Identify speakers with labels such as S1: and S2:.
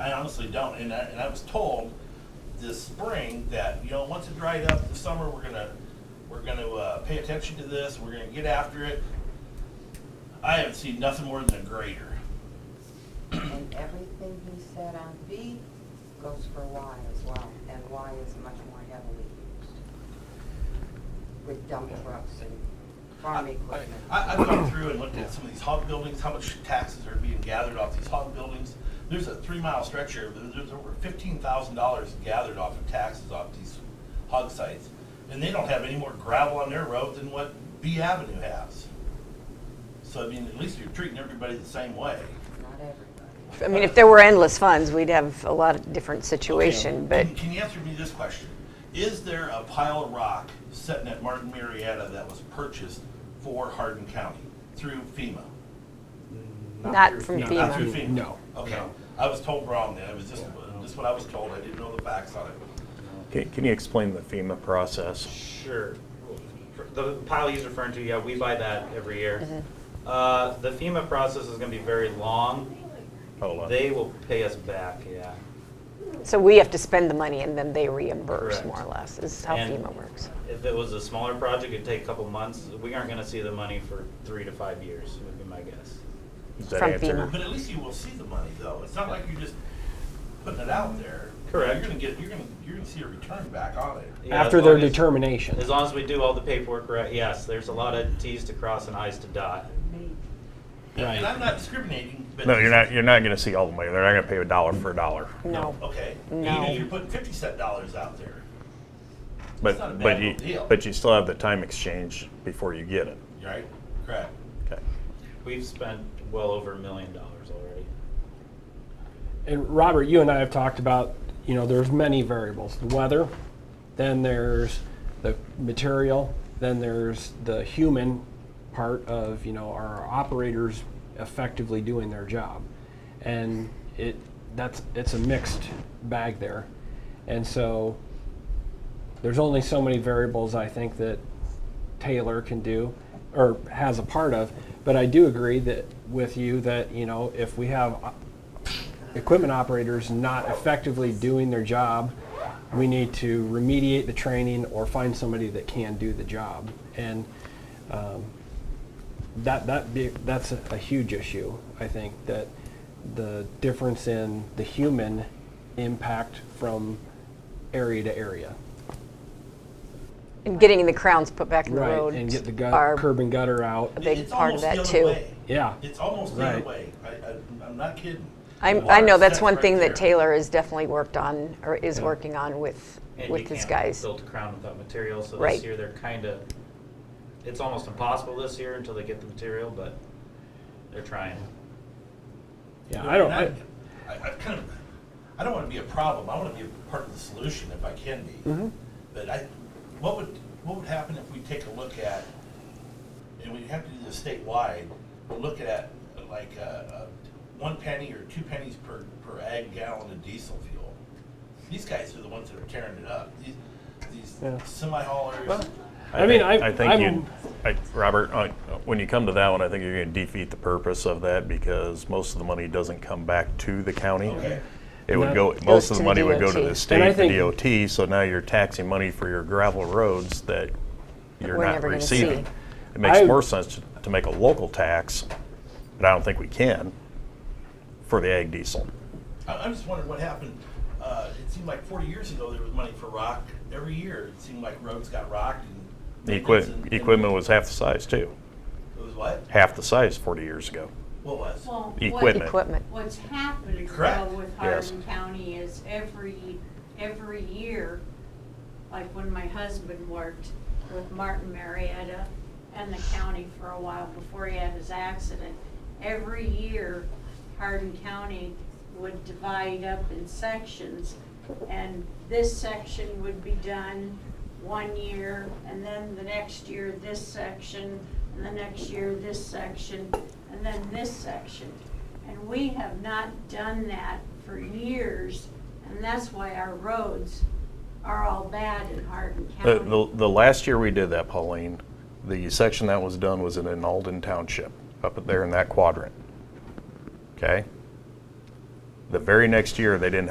S1: I honestly don't, and I, and I was told this spring that, you know, once it dried up, the summer, we're gonna, we're gonna, uh, pay attention to this, we're gonna get after it. I haven't seen nothing more than a grader.
S2: And everything he said on B goes for Y as well, and Y is much more heavily used with dump trucks and farm
S1: I,
S2: equipment.
S1: I- I've gone through and looked at some of these hog buildings, how much taxes are being gathered off these hog buildings. There's a three-mile stretch here, there- there's over fifteen thousand dollars gathered off of taxes off these hog sites. And they don't have any more gravel on their road than what B Avenue has. So, I mean, at least you're treating everybody the same way.
S2: Not everybody.
S3: I mean, if there were endless funds, we'd have a lot of different situation, but
S1: Can- Can you answer me this question? Is there a pile of rock sitting at Martin Marietta that was purchased for Hardin County through FEMA?
S3: Not
S4: through-
S3: from
S4: no,
S3: FEMA.
S1: Not
S4: not
S1: through
S4: through-
S1: FEMA?
S4: No.
S1: Okay,
S4: no.
S1: I was told wrong then, it was just, just what I was told, I didn't know the facts on it.
S5: Can, can you explain the FEMA process?
S6: Sure. The pile he's referring to, yeah, we buy that every year. Uh, The FEMA process is going to be very long.
S5: Hold on.
S6: They will pay us back, yeah.
S3: so we have to spend the money and then they reimburse
S6: Correct.
S3: more or less, is how
S6: And
S3: FEMA works.
S6: If it was a smaller project, it'd take a couple months. We aren't going to see the money for three to five years, would be my guess.
S5: Does that
S3: From
S5: answer?
S3: FEMA.
S1: But at least you will see the money though, it's not like you're just putting it out there.
S6: Correct.
S1: You're gonna get, you're gonna, you're gonna see a return back on it.
S6: Yeah,
S4: After
S6: as
S4: their
S6: long as-
S4: determination.
S6: As long as we do all the paperwork right, yes, there's a lot of Ts to cross and Is to dot.
S1: And I'm not discriminating, but.
S5: No, you're not, you're not gonna see all the money. They're not gonna pay a dollar for a dollar.
S3: No.
S1: Okay, even
S3: No.
S1: if you're putting fifty cent dollars out there, It's not a
S5: But, but
S1: bad
S5: you,
S1: deal.
S5: but you still have the time exchange before you get it.
S1: right? Correct.
S5: Okay.
S6: We've spent well over a million dollars already.
S4: And Robert, you and I have talked about, you know, there's many variables. The weather, then there's the material, then there's the human part of, you know, are our operators effectively doing their job? And it that's it's a mixed bag there. And so there's only so many variables I think that Taylor can do or has a part of, but I do agree that with you that, you know, if we have equipment operators not effectively doing their job, we need to remediate the training or find somebody that can do the job. And um, that that be, that's a, a huge issue. I think that the difference in the human impact from area to area,
S3: And getting the crowns put back in the road.
S4: and get the
S3: are-
S4: gut, curb and gutter out.
S3: big
S1: It's
S3: part
S1: almost
S3: of
S1: the
S3: that,
S1: other
S3: too.
S1: way.
S4: Yeah.
S1: It's almost the other
S4: Right.
S1: way, I, I, I'm not kidding.
S3: I'm, I
S1: Water
S3: know that's
S1: sets
S3: one
S1: right
S3: thing
S1: there.
S3: that Taylor has definitely worked on, or is working on with,
S6: And
S3: with
S6: you
S3: his
S6: can't
S3: guys.
S6: Build a crown without material, so
S3: Right.
S6: this year they're kind of, it's almost impossible this year until they get the material, but they're trying.
S4: Yeah, I don't. I,
S1: And I, I, I kind of, I don't want to be a problem. I want to be a part of the solution if I can be.
S4: Mm-hmm.
S1: But I, what would, what would happen if we take a look at, and we have to do this statewide, we're looking at like uh uh one penny or two pennies per, per ag gallon of diesel fuel. These guys are the ones that are tearing it up. These,
S4: Yeah.
S1: these semi haulers.
S4: I mean,
S5: think-
S4: I-
S5: I think
S4: I'm-
S5: you, I, Robert, uh, when you come to that one, I think you're gonna defeat the purpose of that because most of the money doesn't come back to the county.
S1: Okay.
S5: It would
S4: That-
S5: go, most
S3: Goes
S5: of
S3: to
S5: the
S3: the
S5: money would go to
S3: DOT.
S5: the
S4: And I
S5: state, the
S4: think-
S5: DOT, so now you're taxing money for your gravel roads that you're
S3: we're
S5: not
S3: never gonna
S5: receiving.
S3: see.
S5: It makes
S4: I-
S5: more sense to- to make a local tax, but I don't think we can, for the ag diesel.
S1: I, I'm just wondering what happened. Uh, it seemed like 40 years ago there was money for rock every year. It seemed like roads got rocked and
S5: The
S1: maintenance and-
S5: equipment, equipment was half the size too,
S1: It was what?
S5: half the size 40 years ago.
S1: What was?
S7: Well, what,
S5: Equipment.
S3: Equipment.
S7: what's happening
S1: Correct.
S7: though with
S5: Yes.
S7: Hardin County is every, every year, like when my husband worked with Martin Marietta and the county for a while before he had his accident, every year Hardin County would divide up in sections and this section would be done one year, and then the next year, this section, and the next year, this section, and then this section. And we have not done that for years, and that's why our roads are all bad in Hardin
S5: The,
S7: County.
S5: the, the last year we did that, Pauline, the section that was done was in an Alden Township, up there in that quadrant. Okay? The very next year, they didn't